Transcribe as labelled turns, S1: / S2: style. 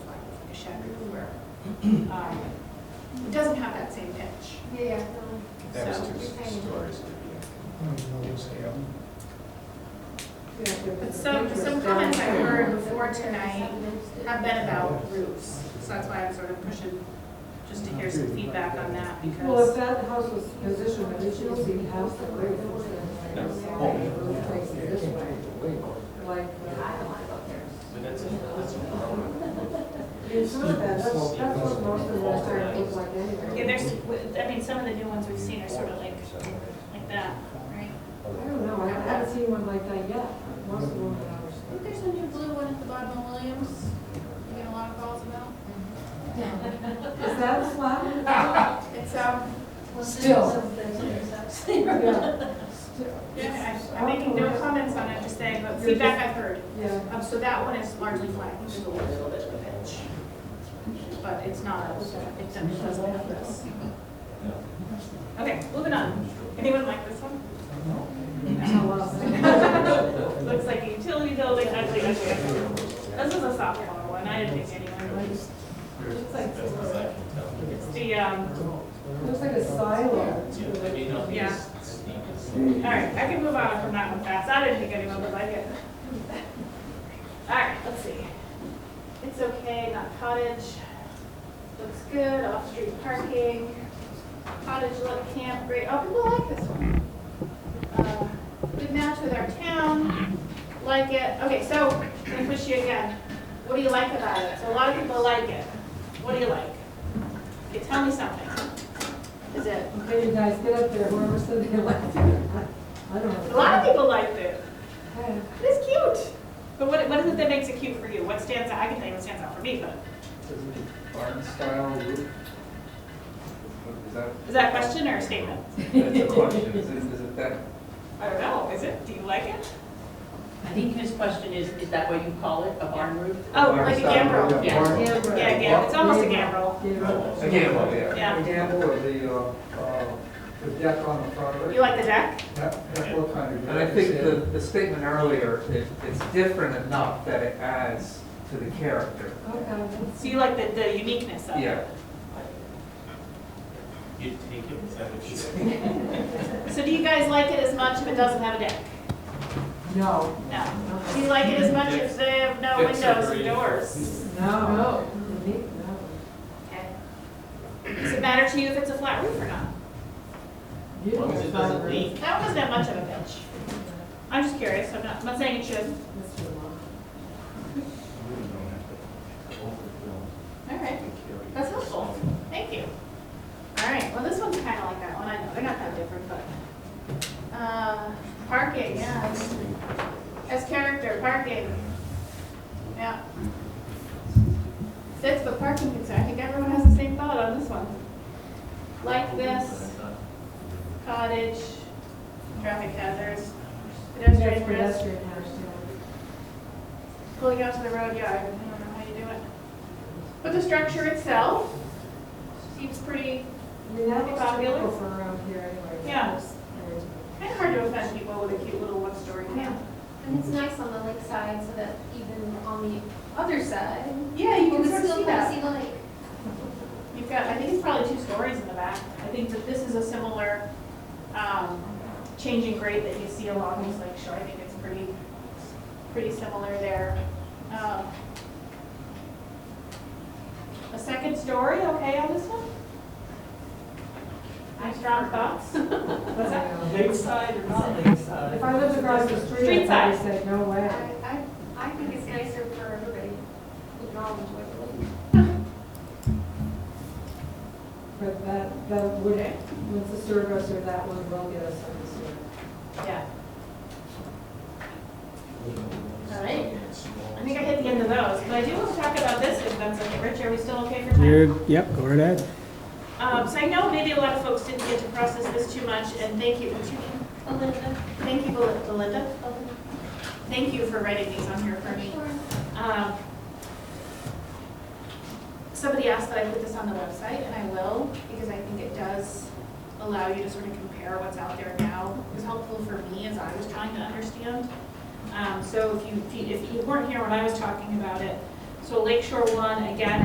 S1: Chateauroux, where, um, it doesn't have that same pitch.
S2: Yeah, yeah.
S3: That was
S1: So
S3: two
S2: we're saying-
S3: stories to be
S1: But some, some comments I've heard before tonight have been about roofs, so that's why I'm sort of pushing, just to hear some feedback on that,
S4: Well, if
S1: because,
S4: that house was positioned originally, we'd have the roof.
S5: No.
S4: Place it this way, like,
S5: But that's, a- that's a problem.
S4: you saw that, that's, that's what most of the rest are look like
S1: yeah,
S4: anyway.
S1: there's, I mean, some of the new ones we've seen are sort of like, like that, right?
S4: I don't know, I haven't seen one like that yet, most of them are
S2: I
S4: ours.
S2: think there's a new blue one at the bottom of Williams, you get a lot of calls about.
S4: Is that a slab?
S2: It's, um,
S6: Still.
S4: Yeah.
S1: Yeah, I- I'm making no comments on it, just saying, but feedback I've heard.
S4: Yeah,
S1: Um, so that one is largely flat, there's a little bit of a pitch. But it's not, it's, it doesn't have this. Okay, moving on. Anyone like this one? Looks like a utility building, ugly, ugly. ugly. This is a softball one, I didn't think anyone would.
S4: looks like,
S5: That's what I can tell.
S1: It's the, um,
S4: looks like a silo.
S5: Yeah, I mean, I'll be
S1: Yeah.
S5: as sneaky as-
S1: all right, I can move on from that one fast, I didn't think anyone would like it. All right, let's see. It's okay, not cottage. Looks good, off-street parking. Cottage, little camp, great, oh, people like this one. Uh, Good match with our town, like it, okay, so, I'm gonna push you again. What do you like about it? So a lot of people like it. What do you like? Okay, tell me something. Is it
S4: Okay, you guys, get up there, whoever said they liked it. I don't know.
S1: A lot of people liked it.
S4: Yeah.
S1: It's cute. But what, what is it that makes it cute for you? What stands out? I can tell you what stands out for me, but
S7: Barn style roof? Is that,
S1: is that a question or a statement?
S7: that's a question, is it, is it that?
S1: I don't know. Is it? Do you like it?
S6: I think his question is, is that what you call it, a barn roof?
S1: Oh,
S7: barn
S1: like a
S7: style
S1: gambrel.
S7: roof?
S6: Yeah.
S7: Barn-
S4: Yeah,
S1: Yeah,
S4: right.
S1: yeah. It's almost a gambrel.
S4: Yeah.
S7: A gamble, yeah.
S1: Yeah.
S7: A gamble with the, uh, uh, the deck on the front of
S1: You
S7: it.
S1: like the deck?
S7: That- that what kind of- And I think the, the statement earlier, it, it's different enough that it adds to the character.
S4: Okay.
S1: So you like the, the uniqueness of it?
S7: Yeah.
S5: You'd take it, is that what you said?
S1: So do you guys like it as much if it doesn't have a deck?
S4: No.
S1: No. Do you like it as much if they have no
S5: Decks are
S1: windows and
S5: great.
S1: doors?
S4: No.
S1: Okay. Does it matter to you if it's a flat roof or not?
S4: You
S5: As long as it doesn't
S4: don't
S5: leak.
S1: That wasn't that much of a pitch. I'm just curious. I'm not, I'm not saying it should. All right. That's helpful. Thank you. All right, well, this one's kind of like that one. I know, they're not that different, but. Uh, Parking, yeah. As character, parking. Yeah. That's the parking concern. I think everyone has the same thought on this one. Like this, cottage, traffic hazards, pedestrian risk.
S4: Pedestrian house,
S1: pulling out to the road yard, I don't know how you do it. But the structure itself seems pretty,
S4: yeah. I mean, that was
S1: Popular?
S4: typical for around here anyway.
S1: Yeah.
S4: There's-
S1: kind of hard to offend people with a cute little one-story camp.
S2: and it's nice on the lake side so that even on the other side,
S1: Yeah,
S2: you
S1: you
S2: can
S1: can sort of
S2: still
S1: see
S2: kind of
S1: that.
S2: see the lake.
S1: You've got, I think it's probably two stories in the back. I think that this is a similar, um, changing grade that you see along these lake shore. I think it's pretty, pretty similar there. Um, A second story, okay on this one? Any strong thoughts? What's that?
S6: Lakeside or not lakeside?
S4: If I lived across the street,
S1: Street
S4: I'd probably
S1: side.
S4: say, no
S2: I,
S4: way.
S2: I, I think it's nicer for everybody. We can all enjoy the lake.
S4: But that, that would,
S1: Okay.
S4: once the sewer goes through, that one will get us on the sewer.
S1: Yeah. All right. I think I hit the end of those, but I do want to talk about this, if that's okay. Rich, are we still okay for time?
S8: You're, yep, go right ahead.
S1: Um, so I know maybe a lot of folks didn't get to process this too much, and thank you, what's your name?
S2: Belinda,
S1: Thank you, Bel- Belinda.
S2: Belinda,
S1: Thank you for writing these on here for me.
S2: sure.
S1: Um, Somebody asked that I put this on the website, and I will, because I think it does allow you to sort of compare what's out there now. It was helpful for me as I was trying to understand. Um, So if you, if you- if you weren't here when I was talking about it, so Lakeshore One, again,